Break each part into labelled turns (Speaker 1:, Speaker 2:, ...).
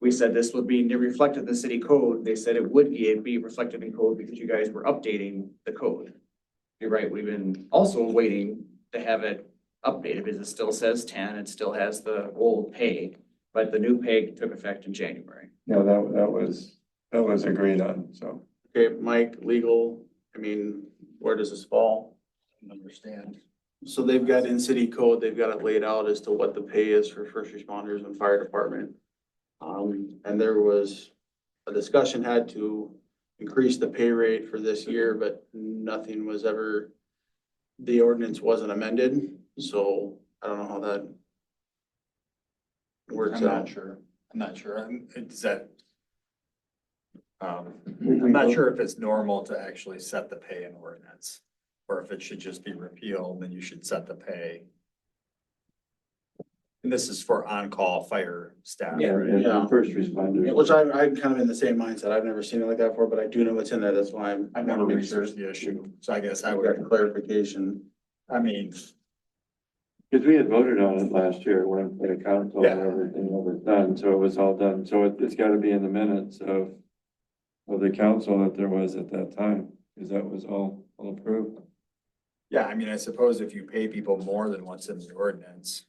Speaker 1: we said this would be reflected in the city code. They said it would be, it'd be reflected in code because you guys were updating the code. You're right, we've been also waiting to have it updated because it still says ten, it still has the old pay, but the new pay took effect in January.
Speaker 2: No, that, that was, that was agreed on, so.
Speaker 3: Okay, Mike, legal, I mean, where does this fall?
Speaker 4: Understand.
Speaker 3: So they've got in city code, they've got it laid out as to what the pay is for first responders and fire department. Um, and there was a discussion had to increase the pay rate for this year, but nothing was ever, the ordinance wasn't amended, so I don't know how that works
Speaker 4: I'm not
Speaker 3: out.
Speaker 4: sure. I'm not sure. I'm, is that? Um,
Speaker 2: we- we
Speaker 4: I'm not
Speaker 2: vote-
Speaker 4: sure if it's normal to actually set the pay in ordinance, or if it should just be repealed, then you should set the pay. And this is for on-call fire staff,
Speaker 1: Yeah.
Speaker 4: right?
Speaker 2: and the
Speaker 3: Yeah.
Speaker 2: First responders.
Speaker 3: Yeah, Which I, I'm kind of in the same mindset. I've never seen it like that before, but I do know what's in there. That's why I'm.
Speaker 4: I've never researched the issue, so I guess I
Speaker 3: I
Speaker 4: would,
Speaker 3: would clarification.
Speaker 4: I mean,
Speaker 2: Cause we had voted on it last year, went to the council and
Speaker 4: Yeah.
Speaker 2: everything was done, so it was all done, so it, it's gotta be in the minutes of. Of the council that there was at that time, cause that was all, all approved.
Speaker 4: yeah, I mean, I suppose if you pay people more than what's in the ordinance,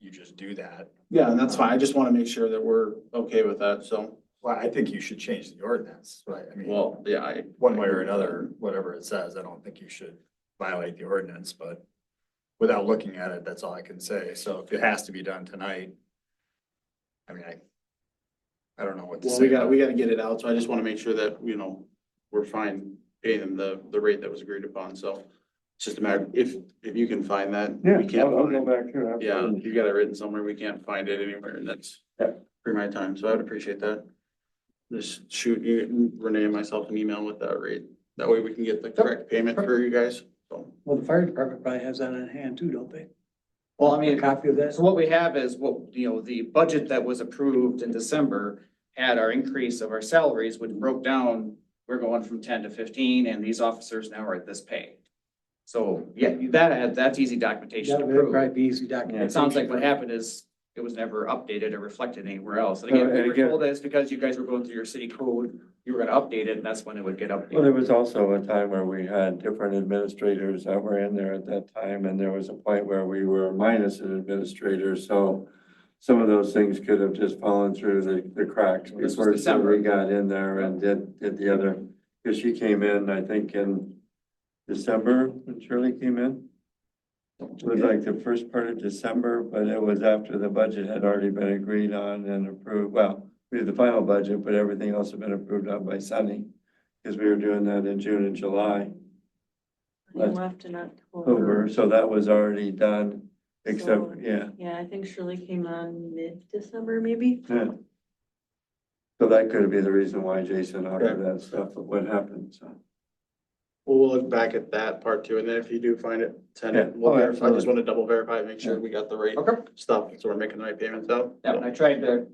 Speaker 4: you just do that.
Speaker 3: Yeah, and that's fine. I just want to make sure that we're okay with that, so.
Speaker 4: Well, I think you should change the ordinance, right? I mean.
Speaker 3: Well, yeah, I.
Speaker 4: one way or another, whatever it says, I don't think you should violate the ordinance, but without looking at it, that's all I can say. So if it has to be done tonight, I mean, I, I don't know what to
Speaker 3: Well,
Speaker 4: say.
Speaker 3: we got, we got to get it out, so I just want to make sure that, you know, we're fine paying them the, the rate that was agreed upon, so. It's just a matter, if, if you can find that,
Speaker 2: Yeah,
Speaker 3: we can't
Speaker 2: I'll, I'll
Speaker 3: find
Speaker 2: go
Speaker 3: it.
Speaker 2: back to it.
Speaker 3: Yeah,
Speaker 2: absolutely.
Speaker 3: you got it written somewhere, we can't find it anywhere, and that's
Speaker 2: Yeah.
Speaker 3: for my time, so I would appreciate that. Just shoot you, Renee and myself an email with that rate, that way we can get the correct payment for you guys, so.
Speaker 5: Well, the fire department probably has that on hand too, don't they?
Speaker 1: Well, I
Speaker 5: A
Speaker 1: mean,
Speaker 5: copy of that?
Speaker 1: so what we have is what, you know, the budget that was approved in December had our increase of our salaries, which broke down, we're going from ten to fifteen, and these officers now are at this pay. So, yeah, that, that's easy documentation
Speaker 5: That
Speaker 1: to
Speaker 5: would
Speaker 1: prove.
Speaker 5: probably be easy document.
Speaker 1: It sounds like what happened is it was never updated or reflected anywhere else. And
Speaker 2: Uh,
Speaker 1: again,
Speaker 2: and
Speaker 1: we were
Speaker 2: again-
Speaker 1: told that it's because you guys were going through your city code, you were gonna update it and that's when it would get
Speaker 2: Well, there
Speaker 1: updated.
Speaker 2: was also a time where we had different administrators that were in there at that time, and there was a point where we were minus an administrator, so some of those things could have just fallen through the, the cracks
Speaker 1: This was
Speaker 2: before
Speaker 1: December.
Speaker 2: somebody got in there and did, did the other. Because she came in, I think, in December, when Shirley came in. It was like the first part of December, but it was after the budget had already been agreed on and approved. Well, we had the final budget, but everything else had been approved on by Sunny. Because we were doing that in June and July,
Speaker 6: I left in
Speaker 2: over,
Speaker 6: October.
Speaker 2: so that was already done, except, yeah,
Speaker 6: Yeah, I think Shirley came on mid-December maybe.
Speaker 2: yeah. So that could be the reason why Jason offered that stuff, of what happened, so.
Speaker 3: Well, we'll look back at that part too, and then if you do find it, send it,
Speaker 2: Yeah.
Speaker 3: we'll
Speaker 2: Oh,
Speaker 3: verify, I just
Speaker 2: absolutely.
Speaker 3: wanna double verify, make sure we got the right
Speaker 1: Okay.
Speaker 3: stuff, so we're making the right payments out.
Speaker 1: Yeah, and I tried to,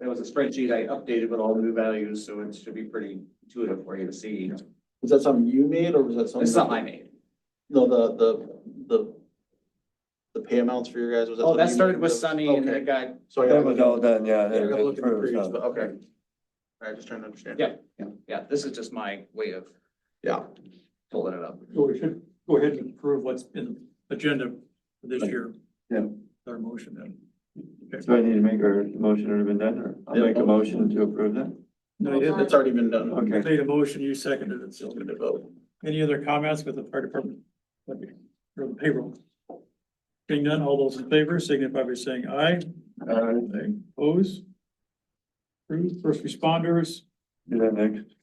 Speaker 1: there was a spreadsheet I updated with all the new values, so it should be pretty intuitive for you to see.
Speaker 3: Was that something you made, or was that something?
Speaker 1: It's something I made.
Speaker 3: No, the, the, the, the pay amounts for your guys, was that?
Speaker 1: Oh, that
Speaker 3: something you
Speaker 1: started
Speaker 3: made?
Speaker 1: with
Speaker 3: That was-
Speaker 1: Sunny and then it
Speaker 3: okay.
Speaker 1: got,
Speaker 3: So I
Speaker 2: That
Speaker 3: gotta
Speaker 2: was
Speaker 3: look
Speaker 2: all
Speaker 3: at,
Speaker 2: done, yeah. uh,
Speaker 3: I
Speaker 2: that-
Speaker 3: gotta look at the
Speaker 2: approved,
Speaker 3: previous,
Speaker 2: so.
Speaker 3: but okay. All right, just trying to understand.
Speaker 1: Yeah. yeah, this is just my way of
Speaker 3: Yeah,
Speaker 1: pulling it up.
Speaker 7: So we should go ahead and approve what's in the agenda for this year.
Speaker 2: Yeah.
Speaker 7: Our motion then.
Speaker 2: So I need to make, or the motion already been done, or I'll
Speaker 3: Yeah.
Speaker 2: make a motion to approve that?
Speaker 7: No, you didn't.
Speaker 3: it's already been done.
Speaker 2: Okay.
Speaker 7: Made a motion, you seconded it.
Speaker 3: Still
Speaker 7: So
Speaker 3: gonna vote.
Speaker 7: any other comments with the fire department? Or the payroll? Being none, all those in favor signify by saying aye.
Speaker 2: Uh,
Speaker 7: Aye. Oppose? Approved. First responders,
Speaker 2: do that next.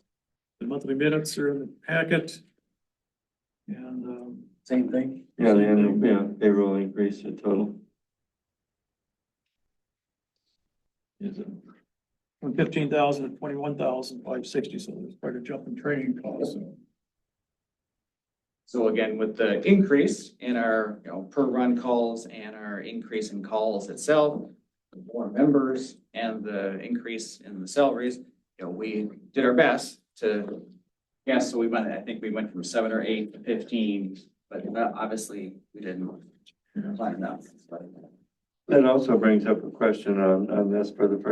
Speaker 7: the monthly minutes are in the packet. And, um,
Speaker 5: Same thing.
Speaker 2: Yeah, the annual, yeah, payroll increase the total.
Speaker 7: is it from fifteen thousand to twenty-one thousand five sixty, so there's quite a jump in training costs.
Speaker 1: So again, with the increase in our, you know, per run calls and our increase in calls itself, the more members and the increase in the salaries, you know, we did our best to, yes, so we went, I think we went from seven or eight to fifteen, but not- obviously, we didn't plan enough. but-
Speaker 2: That also brings up a question on, on this for the first